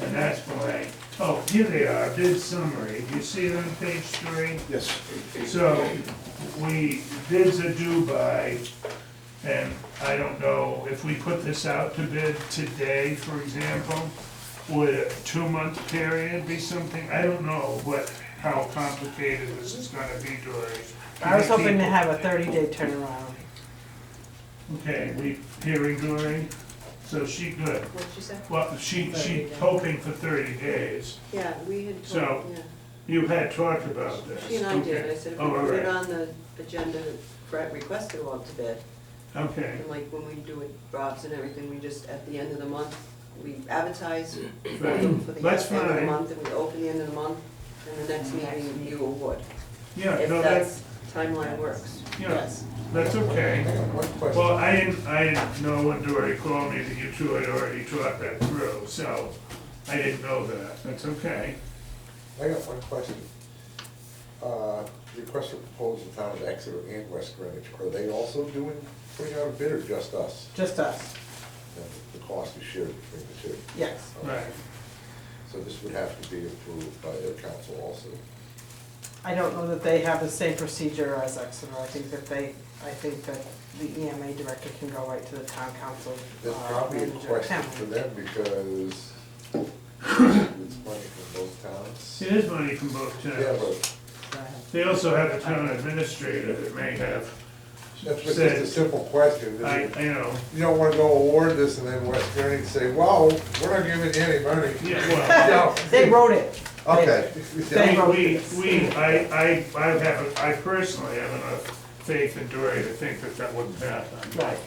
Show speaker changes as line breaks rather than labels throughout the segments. And that's why, oh, here they are, bid summary, do you see it on page three?
Yes.
So, we, bids are due by, and I don't know, if we put this out to bid today, for example, would a two-month period be something? I don't know what, how complicated this is gonna be, Dory.
I was hoping to
People-
have a thirty day turnaround.
Okay, we hearing Dory, so she good.
What'd you say?
Well, she, she
30 days.
hoping for thirty days.
Yeah, we had
So-
told, yeah,
You had talked about this.
she and I did, I
Okay.
said if we
Oh, all
put it
right,
on the agenda for at request to go out to bid,
okay,
and like when we do it, drops and everything, we just, at the end of the month, we advertise for the
Right.
for the
That's
end of the
fine.
month, and we open the end of the month, and the next meeting you award.
yeah,
If
no, that's,
that's timeline works,
Yeah.
yes.
that's
I
okay.
got one question.
Well, I didn't, I didn't know when Dory called me that you two had already talked that through, so I didn't know that, that's okay.
I got one question. Uh, Request for proposal, town of Exeter and West Greenwich, are they also doing, putting out a bid or just us?
Just us,
And The cost is shared between the two.
yes.
Right,
So this would have to be approved by their council also.
Uh, I don't know that they have the same procedure as Exeter. I think that they, I think that the EMA director can go right to the town council.
That's
uh,
probably a
manager.
question
Town.
for them because it's money from both towns.
it is money from both
Yeah,
towns.
but
Go ahead.
They also have a town administrator that may have
that's just a
said,
simple question.
I, I know,
You don't wanna go award this and then West Greenwich say, wow, we're not giving you any money.
yeah, well.
No.
They wrote it.
Okay.
They
We,
wrote
we,
this.
we, I, I, I have, I personally have enough faith in Dory to think that that wouldn't happen.
Right.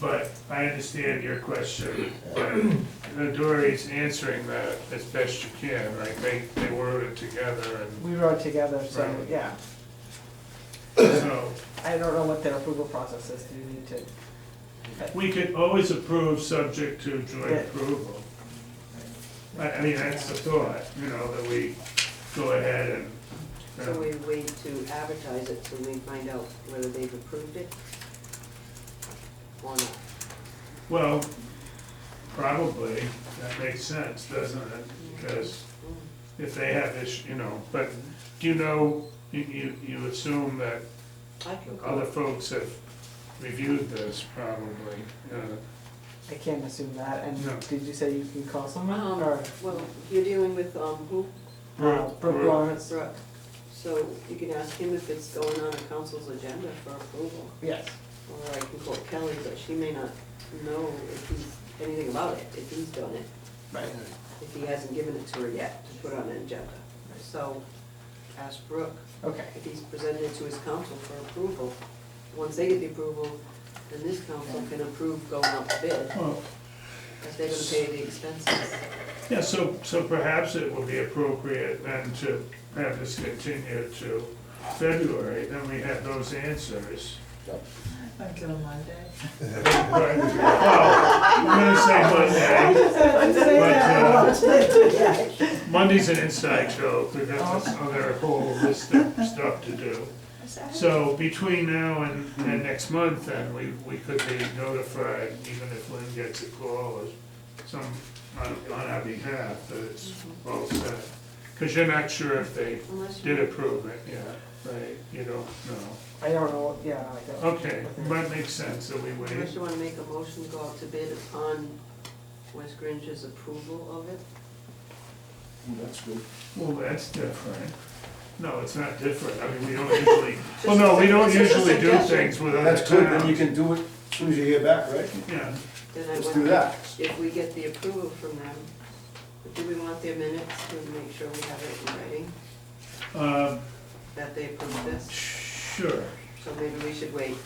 But I understand your question, but Dory's answering that as best you can, like they, they wrote it together
We wrote it together, so,
Right.
yeah.
and so.
I don't know what their approval process is. Do you need to?
We could always approve subject to joint
Yeah.
approval. I, I mean, that's the thought, you know, that we go ahead and. uh,
So we wait to advertise it till we find out whether they've approved it or not.
Well, probably, that makes sense, doesn't it? Because if they have this, you know, but do you know, you, you, you assume that
I can go.
other folks have reviewed this probably, uh,
I can't assume that.
No.
And did you say you can call someone
Um,
or?
Well, you're dealing with, um, who?
Uh,
Brooke-
Brooke
Brooke.
Lawrence,
Brooke. So you can ask him if it's going on the council's agenda for approval.
yes.
Or I can call Kelly, but she may not know if he's, anything about it, if he's done it,
Right.
if he hasn't given it to her yet to put on an agenda. So ask Brooke
Okay,
if he's presented it to his council for approval. Once they get the approval, then this council can approve going out to bid,
Well,
if they're gonna pay the expenses.
yeah, so, so perhaps it would be appropriate then to have this continue to February, then we have those answers.
Until Monday.
Right, Well, I'm gonna say Monday. Monday's an inside joke, we've got this other whole list of stuff to do. So between now and, and next month, then, we, we could be notified, even if Lynn gets a call or some, on, on our behalf, that it's all set. Cause you're not sure if they
Unless you.
did approve it, yeah, right, you don't know.
I don't know, yeah, I don't.
Okay, might make sense that we wait.
Unless you wanna make a motion to go out to bid upon West Grange's approval of it?
That's good.
Well, that's different. No, it's not different. I mean, we don't usually, well, no, we don't
It's just a
usually do
suggestion.
things without a
That's good, then you
town.
can do it as soon as you hear back, right?
Yeah,
Then I
Let's do
wonder
that.
If we get the approval from them, do we want their minutes to make sure we have it in writing,
um,
that they approve this?
sure.
So maybe we should wait.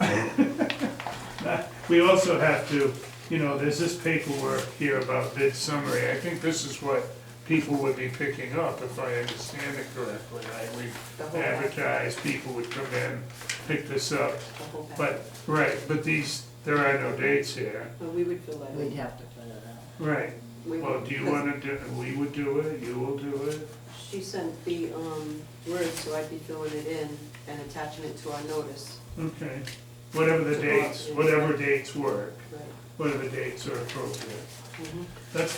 Uh, We also have to, you know, there's this paperwork here about bid summary. I think this is what people would be picking up, if I understand it correctly. Like, we
The whole, the
advertise, people would come in, pick this up.
whole pack.
But, right, but these, there are no dates here.
But we would fill that
We'd
in.
have to put it out.
Right.
We
Well,
would-
do you wanna do, we would do it, you will do it?
because She sent the, um, words, so I'd be filling it in and attaching it to our notice.
Okay, whatever the dates, whatever dates work,
Right.
whatever dates are appropriate.
Mhm.
That's